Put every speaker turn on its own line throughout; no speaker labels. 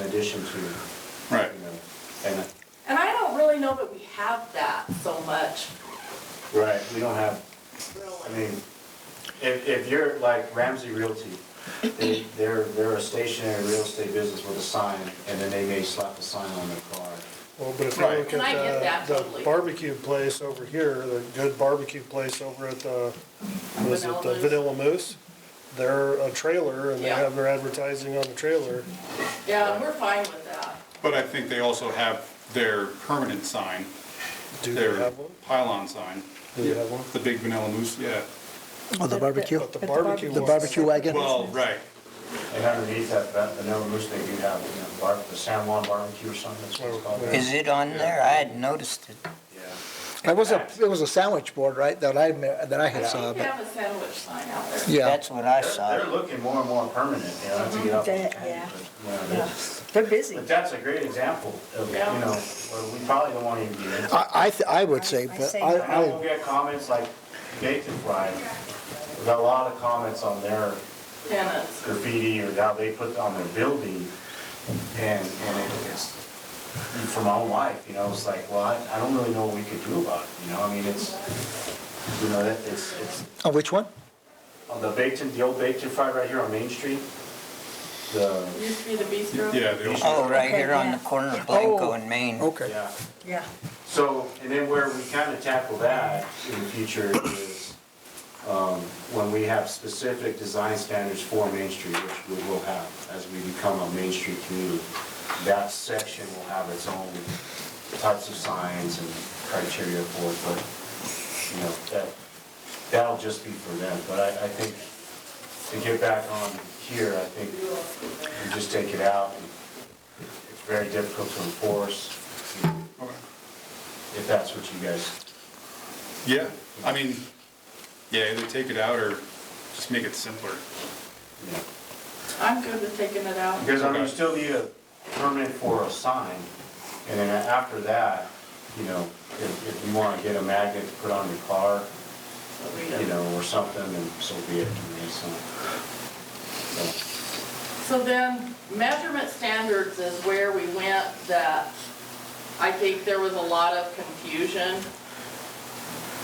addition to,
Right.
you know, kind of,
And I don't really know that we have that so much,
right, we don't have, I
really.
mean, if, if you're like Ramsey Realty, they, they're, they're a stationary real estate business with a sign, and then they may slap a sign on their car.
Well, but if you
Right.
look
And I get
at
that
the- the
totally.
barbecue place over here, the good barbecue place over at the, was it
Vanilla
the
Moose?
Vanilla Moose? They're a trailer and they
Yeah.
have their advertising on the trailer.
Yeah, and we're fine with that.
But I think they also have their permanent sign,
Do they
their
have one?
pylon sign,
Do they have one?
the big vanilla moose, yeah.
Oh, the barbecue?
But the barbecue
The
one-
barbecue wagon?
Well, right,
And underneath that, that vanilla moose thing, you have, you know, bar, the San Juan barbecue or something, that's what it's called.
Is it on there? I hadn't noticed it.
Yeah.
It was a, it was a sandwich board, right, that I, ma- that I had saw,
We
but,
have a sandwich sign out there.
yeah.
That's what I
They're
saw.
looking more and more permanent, you know, to get off. the
Mhm, that-
patent,
yeah.
but, you know, they're-
They're busy.
But that's a great example of, you
Yeah.
know, where we probably don't want to even be in. it.
I, I, th- I would say,
I
but
say
I,
no.
I will
I,
get comments like Nathan Fry, we got a lot of comments on their
Tenants.
graffiti or how they put on their building. And, and it's, for my own life, you know, it's like, well, I, I don't really know what we could do about it, you know, I mean, it's, you know, that, it's, it's,
oh, which one?
on the Baton, the old Baton Fry right here on Main Street, the,
It used to be the bistro.
yeah, they also,
Oh, right here on the corner of Blanco
Oh,
and Main.
Okay.
yeah.
Yeah.
So, and then where we kind of tackle that in the future is um, when we have specific design standards for Main Street, which we will have as we become a Main Street community. That section will have its own types of signs and criteria for it, but, you know, that, that'll just be for them. But I, I think to get back on here, I think you just take it out. It's very difficult to enforce
Oh.
okay.
if that's what you guys
yeah, I mean, yeah, either take it out or just make it simpler.
Yeah.
I'm good with taking it out.
Because I mean, you still need a permit for a sign, and then after that, you know, if, if you wanna get a magnet to put on your car,
But we
you
don't.
know, or something, then so be it, I mean, it's not. so.
So then, measurement standards is where we went that I think there was a lot of confusion.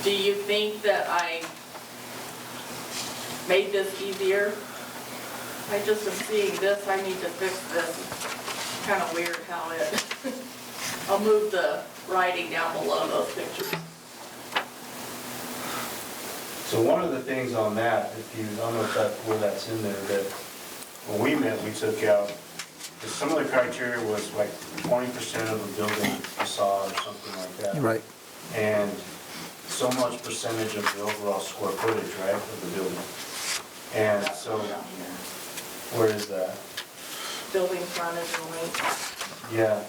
Do you think that I made this easier? I just am seeing this, I need to fix this. Kind of weird how it, I'll move the writing down below those pictures.
So one of the things on that, if you, I don't know if that, where that's in there, that when we met, we took out, 'cause some of the criteria was like twenty percent of a building facade or something like that.
Right.
and so much percentage of the overall square footage, right, of the building. And so,
Down here.
where is that?
Building frontage and length.
Yeah.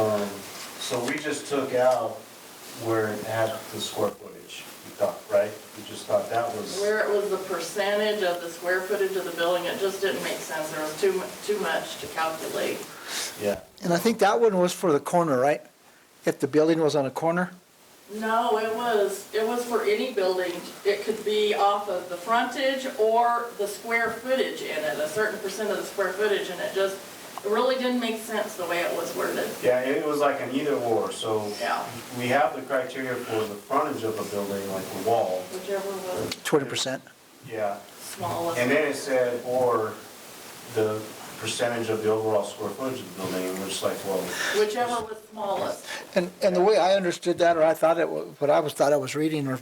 Um, so we just took out where it had the square footage, we thought, right? We just thought that was,
Where it was the percentage of the square footage of the building, it just didn't make sense, there was too mu, too much to calculate.
yeah.
And I think that one was for the corner, right? If the building was on a corner?
No, it was, it was for any building, it could be off of the frontage or the square footage in it, a certain percent of the square footage, and it just, it really didn't make sense the way it was worded.
Yeah, it was like an either or, so
Yeah,
we have the criteria for the frontage of a building, like the wall,
whichever was
Twenty percent?
yeah.
smallest.
And then it said, or the percentage of the overall square footage of the building, which is like, well,
Whichever was smallest.
And, and the way I understood that, or I thought it, wa- what I was, thought I was reading, or,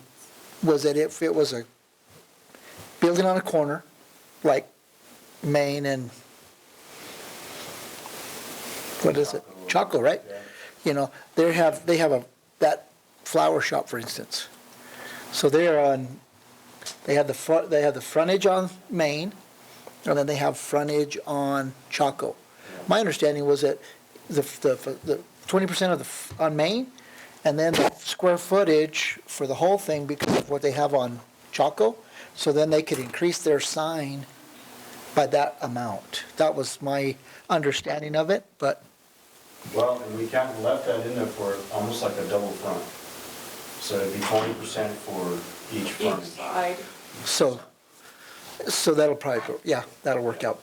was that if it was a building on a corner, like Maine and, what is it? Chaco, right? You know, they have, they have a, that flower shop, for instance. So they're on, they have the front, they have the frontage on Maine, and then they have frontage on Chaco. My understanding was that the, the, the twenty percent of the, f- on Main, and then the square footage for the whole thing because of what they have on Chaco, so then they could increase their sign by that amount. That was my understanding of it, but
well, and we kind of left that in there for almost like a double front. So it'd be twenty percent for each
Each
front.
side.
so, so that'll probably, go- yeah, that'll work out